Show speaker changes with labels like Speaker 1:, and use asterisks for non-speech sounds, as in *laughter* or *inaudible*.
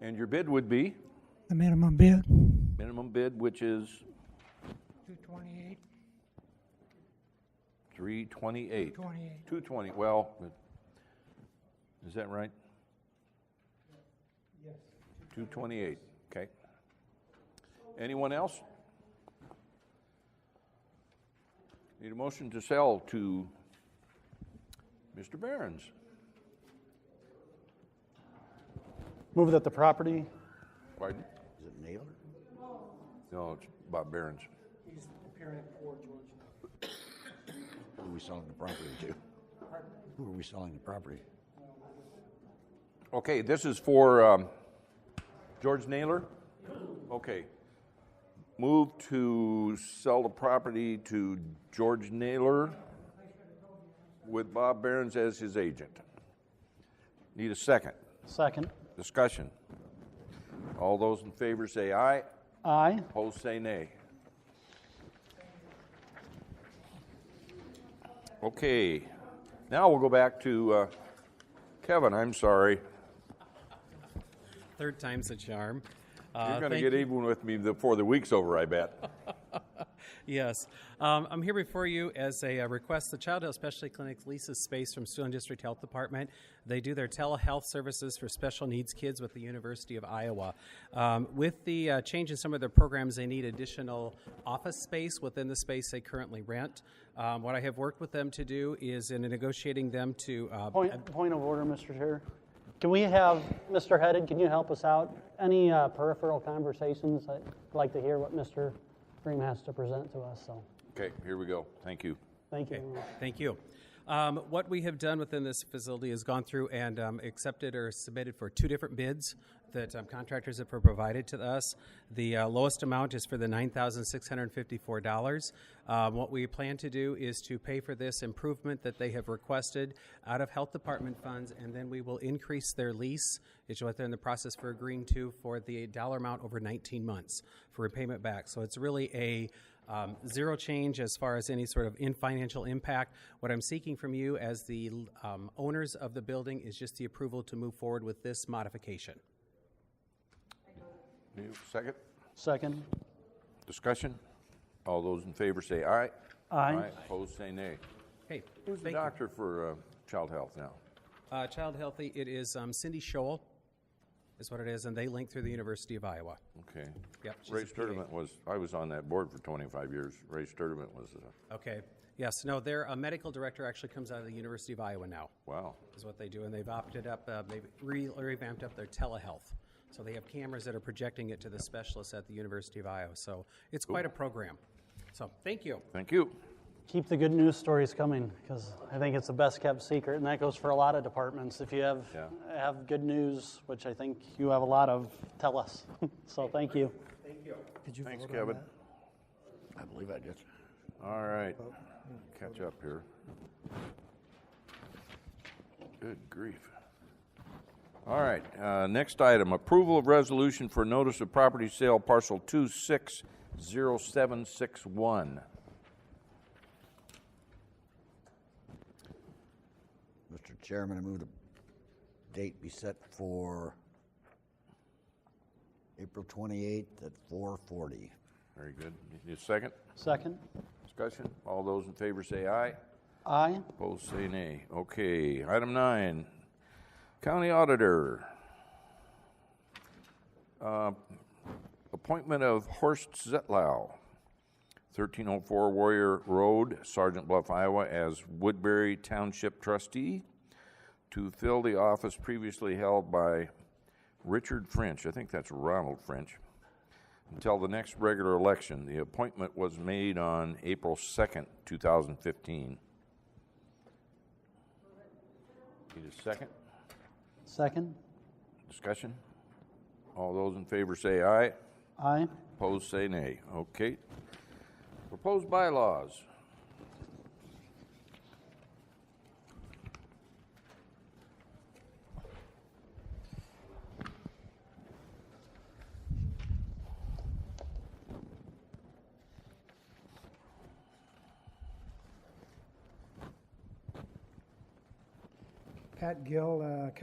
Speaker 1: And your bid would be
Speaker 2: The minimum bid,
Speaker 1: minimum bid, which is
Speaker 2: two twenty-eight,
Speaker 1: three twenty-eight.
Speaker 2: twenty-eight.
Speaker 1: Two twenty, well, but- is that right? Yes. Two twenty-eight, okay. Anyone else? Need a motion to sell to Mr. Behrens.
Speaker 3: Move that the property,
Speaker 1: Pardon?
Speaker 4: Is it Naylor?
Speaker 1: No, it's Bob Behrens.
Speaker 4: Who are we selling the property to? Who are we selling the property?
Speaker 1: Okay, this is for um, George Naylor? Okay. Move to sell the property to George Naylor with Bob Behrens as his agent. Need a second.
Speaker 3: second.
Speaker 1: Discussion. All those in favor say aye,
Speaker 3: Aye.
Speaker 1: opposed say nay. Okay, now we'll go back to uh, Kevin, I'm sorry.
Speaker 5: Third time's a charm. Uh,
Speaker 1: You're going to get even with me before the week's over, I bet.
Speaker 5: Yes. Um, I'm here before you as a uh, request. The Child Health Specialty Clinic leases space from Siouxland District Health Department. They do their telehealth services for special needs kids with the University of Iowa. Um, with the uh, change in some of their programs, they need additional office space within the space they currently rent. Um, what I have worked with them to do is in negotiating them to uh,
Speaker 3: Point, point of order, Mr. Chair. Can we have, Mr. Headed, can you help us out? Any uh, peripheral conversations? I'd like to hear what Mr. Green has to present to us, so,
Speaker 1: Okay, here we go. Thank you.
Speaker 3: thank you. very much.
Speaker 5: Thank you. Um, what we have done within this facility is gone through and um, accepted or submitted for two different bids that um, contractors have provided to us. The uh, lowest amount is for the $9,654. Um, what we plan to do is to pay for this improvement that they have requested out of health department funds, and then we will increase their lease. It's what they're in the process for agreeing to for the dollar amount over 19 months for repayment back. So it's really a um, zero change as far as any sort of in financial impact. What I'm seeking from you as the um, owners of the building is just the approval to move forward with this modification.
Speaker 1: You- Second,
Speaker 3: Second.
Speaker 1: discussion. All those in favor say aye.
Speaker 3: Aye.
Speaker 1: Opposed say nay.
Speaker 5: Okay.
Speaker 1: Who's the
Speaker 5: thank you.
Speaker 1: doctor for uh, child health now?
Speaker 5: Uh, Child Healthy, it is um, Cindy Scholl is what it is, and they link through the University of Iowa.
Speaker 1: Okay.
Speaker 5: Yep, she's
Speaker 1: Ray
Speaker 5: a PA.
Speaker 1: Sturdivant was, I was on that board for 25 years. Ray Sturdivant was, uh,
Speaker 5: Okay. Yes, no, their uh, medical director actually comes out of the University of Iowa now.
Speaker 1: wow.
Speaker 5: is what they do, and they've opted up, uh, they've re- revamped up their telehealth. So they have cameras that are projecting it to the specialists at the University of Iowa. So it's quite a program. So thank you.
Speaker 1: Thank you.
Speaker 3: Keep the good news stories coming, because I think it's the best-kept secret, and that goes for a lot of departments. If you have,
Speaker 1: Yeah.
Speaker 3: have good news, which I think you have a lot of, tell us. *laughs* So, thank you.
Speaker 1: Thanks, Kevin.
Speaker 4: I believe I did.
Speaker 1: All right, catch up here. Good grief. All right, uh, next item, approval of resolution for notice of property sale parcel 260761.
Speaker 4: Mr. Chairman, I move the date be set for April 28th at 4:40.
Speaker 1: Very good. Need a second?
Speaker 3: Second.
Speaker 1: Discussion? All those in favor say aye.
Speaker 3: Aye.
Speaker 1: Opposed say nay. Okay, item nine, county auditor. Uh, Appointment of Horst Zetlau, 1304 Warrior Road, Sergeant Bluff, Iowa, as Woodbury Township trustee to fill the office previously held by Richard French, I think that's Ronald French, until the next regular election. The appointment was made on April 2nd, 2015. Need a second?
Speaker 3: Second.
Speaker 1: Discussion? All those in favor say aye.
Speaker 3: Aye.
Speaker 1: Opposed say nay. Okay. Proposed bylaws.
Speaker 2: Pat Gill, uh,